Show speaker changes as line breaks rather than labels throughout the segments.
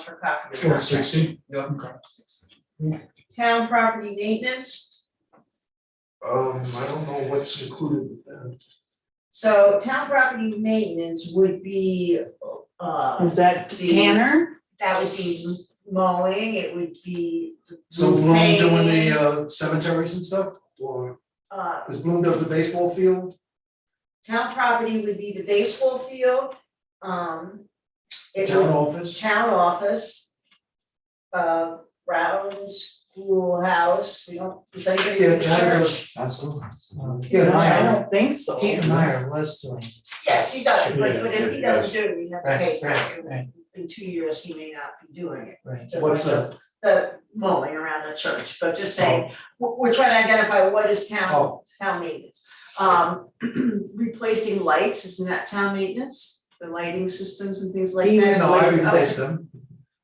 for property.
Sure, sixty?
Yeah.
Okay.
Town property maintenance,
Um, I don't know what's included with that.
so town property maintenance would be, uh,
Is that Tanner?
that would be mowing, it would be,
So Bloom doing
Maybe.
the uh, cemeteries and stuff, or
uh,
is Bloom does the baseball field?
town property would be the baseball field, um, it would
Town office,
town office. Uh, Rowland Schoolhouse, we don't, is anybody in
yeah,
the
town
church?
goes,
That's cool. That's cool.
yeah,
No, I
town,
don't think so.
Keith Meyer was doing this.
Yes, he does, but but if he
Yeah, yeah,
doesn't do it, we have to pay for
Right, right,
it,
right.
in two years, he may not be doing it.
Right.
So
what's
like
that?
The the mowing around the church, but just saying,
Oh.
we're we're trying to identify what is town
Oh,
town maintenance. Um, replacing lights, isn't that town maintenance, the lighting systems and things like that?
no, I
Lights, oh,
replaced them,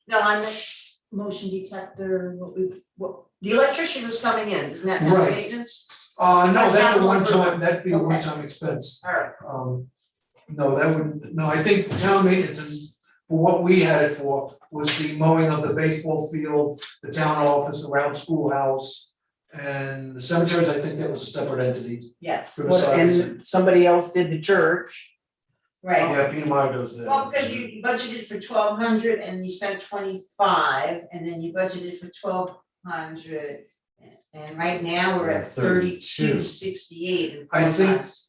No, I meant motion detector, what we, what, the electrician is coming in, isn't that town
Right.
maintenance?
uh, no,
That's
that's
not
a
one
one
per-
time, that'd be a
Okay.
one time expense,
Alright,
um, no, that wouldn't, no, I think town maintenance and for what we had it for was the mowing of the baseball field, the town office around schoolhouse, and the cemeteries, I think that was a separate entity,
yes,
What-
Riverside.
And somebody else did the church.
right.
Yeah, Peter Meyer does that.
Well, because you you budgeted for twelve hundred and you spent twenty-five, and then you budgeted for twelve hundred. And right now, we're at
At 32.
thirty-two sixty-eight in four
I think-
months.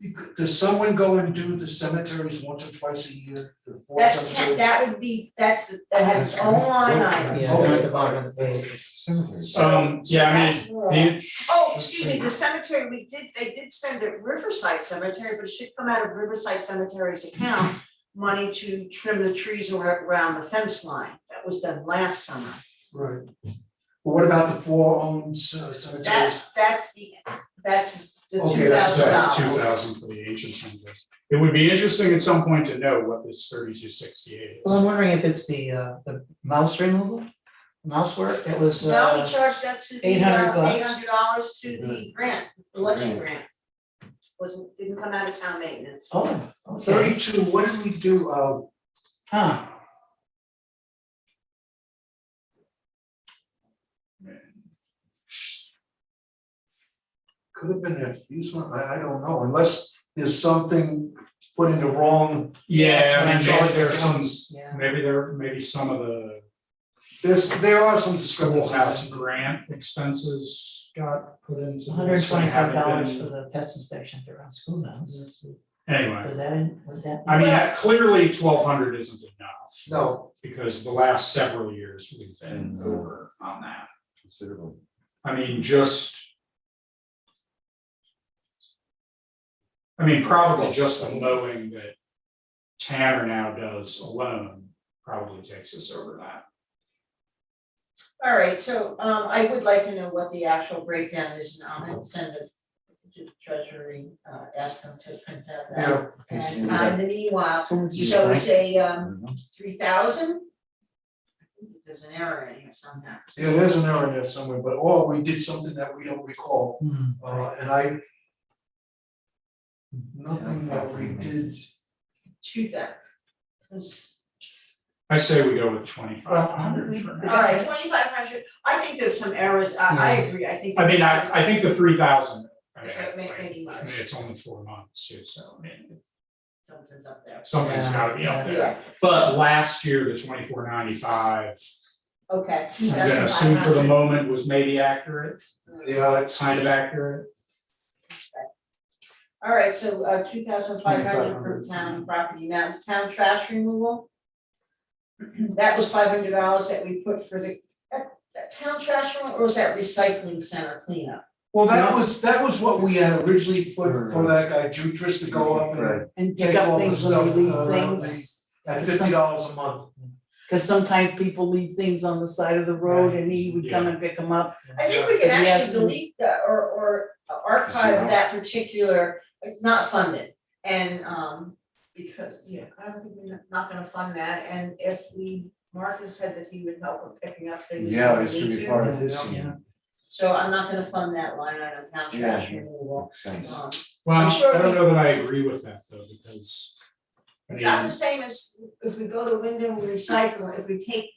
You could- Does someone go and do the cemeteries once or twice a year, the four
That's ten,
cemeteries?
that would be, that's, the- that has its own line item.
Yeah, down at the bottom of the page.
So-
Um, yeah, I mean,
so that's more.
You-
Oh, excuse me, the cemetery, we did, they did spend at Riverside Cemetery, but it should come out of Riverside Cemetery's account. Money to trim the trees ar- around the fence line, that was done last summer.
Right. Well, what about the four owned ce- cemeteries?
That, that's the, that's the
Okay,
two
that's
thousand
So
dollars.
two thousand for the agency. It would be interesting at some point to know what this thirty-two sixty-eight
Well, I'm wondering if it's the uh the mouse removal, mouse work, it was
No, we
uh,
charged that to the, eight
$800 bucks.
hundred dollars to the grant, election grant. Wasn't, didn't come out of town maintenance.
oh, okay,
Thirty-two, what did we do, uh,
huh,
could have been a fuse one, I, I don't know, unless there's something put in the wrong,
Yeah, I mean,
Yeah,
maybe
it's
there's some,
yeah.
maybe there, maybe some of the
there's, there are some
schoolhouse
discrepancies.
grant expenses got put into.
hundred and
this and
twenty-five
haven't
dollars for
been-
the pest inspection around schoolhouse,
Mm-hmm.
Anyway,
was that in, was that?
I mean, clearly twelve hundred isn't enough.
No,
because the last several years we've been over on that.
Considerable.
I mean, just. I mean, probably just the mowing that Tanner now does alone probably takes us over that.
All right, so um I would like to know what the actual breakdown is, and I'm gonna send the to treasury, uh ask them to print out that.
yeah,
And uh, in the meanwhile,
So would you
shall we
like-
say um three thousand? There's an error in here somehow.
yeah, there's an error in there somewhere, but, or we did something that we don't recall.
Hmm.
Uh, and I. Nothing that we did,
Two thousand. 'Cause-
I say we go with twenty five hundred for
All
now.
right, twenty five hundred, I think there's some errors, I I agree, I think.
I mean, I I think the three thousand. I mean,
Is that ma- making
I
much?
mean, it's only four months too, so I mean,
Something's up there.
something's gotta be up there.
Yeah,
But last year, the twenty four ninety five,
okay.
I'm gonna assume for the
2,500.
moment was maybe accurate.
yeah, it's
kind of accurate.
All right, so uh two thousand five hundred for
2,500.
town property, now town trash removal. That was five hundred dollars that we put for the, that that town trash removal, or was that recycling center cleanup?
Well, that was, that was what we had originally put for
Right.
that guy, Jutris, to go up and
Right.
And
Take
pick
all
up
the
things when we
stuff, uh,
leave things.
at fifty dollars a month.
Cause sometimes people leave things on the side of the road and he would come and pick them up.
I think we can
Yeah.
actually
Yes.
delete the, or or archive
Zero.
that particular, it's not funded, and um. Because, yeah, I don't think we're not gonna fund that, and if we, Marcus said that he would help with picking up things. if
Yeah,
we
it's gonna
need
be
to,
part of his
Yeah.
scene.
So I'm not gonna fund that line item, town trash
Yeah.
removal,
Makes sense.
um.
Well,
I'm sure
I don't
we-
know that I agree with that though, because
It's not the same as if we go to Wyndham Recycle, if we take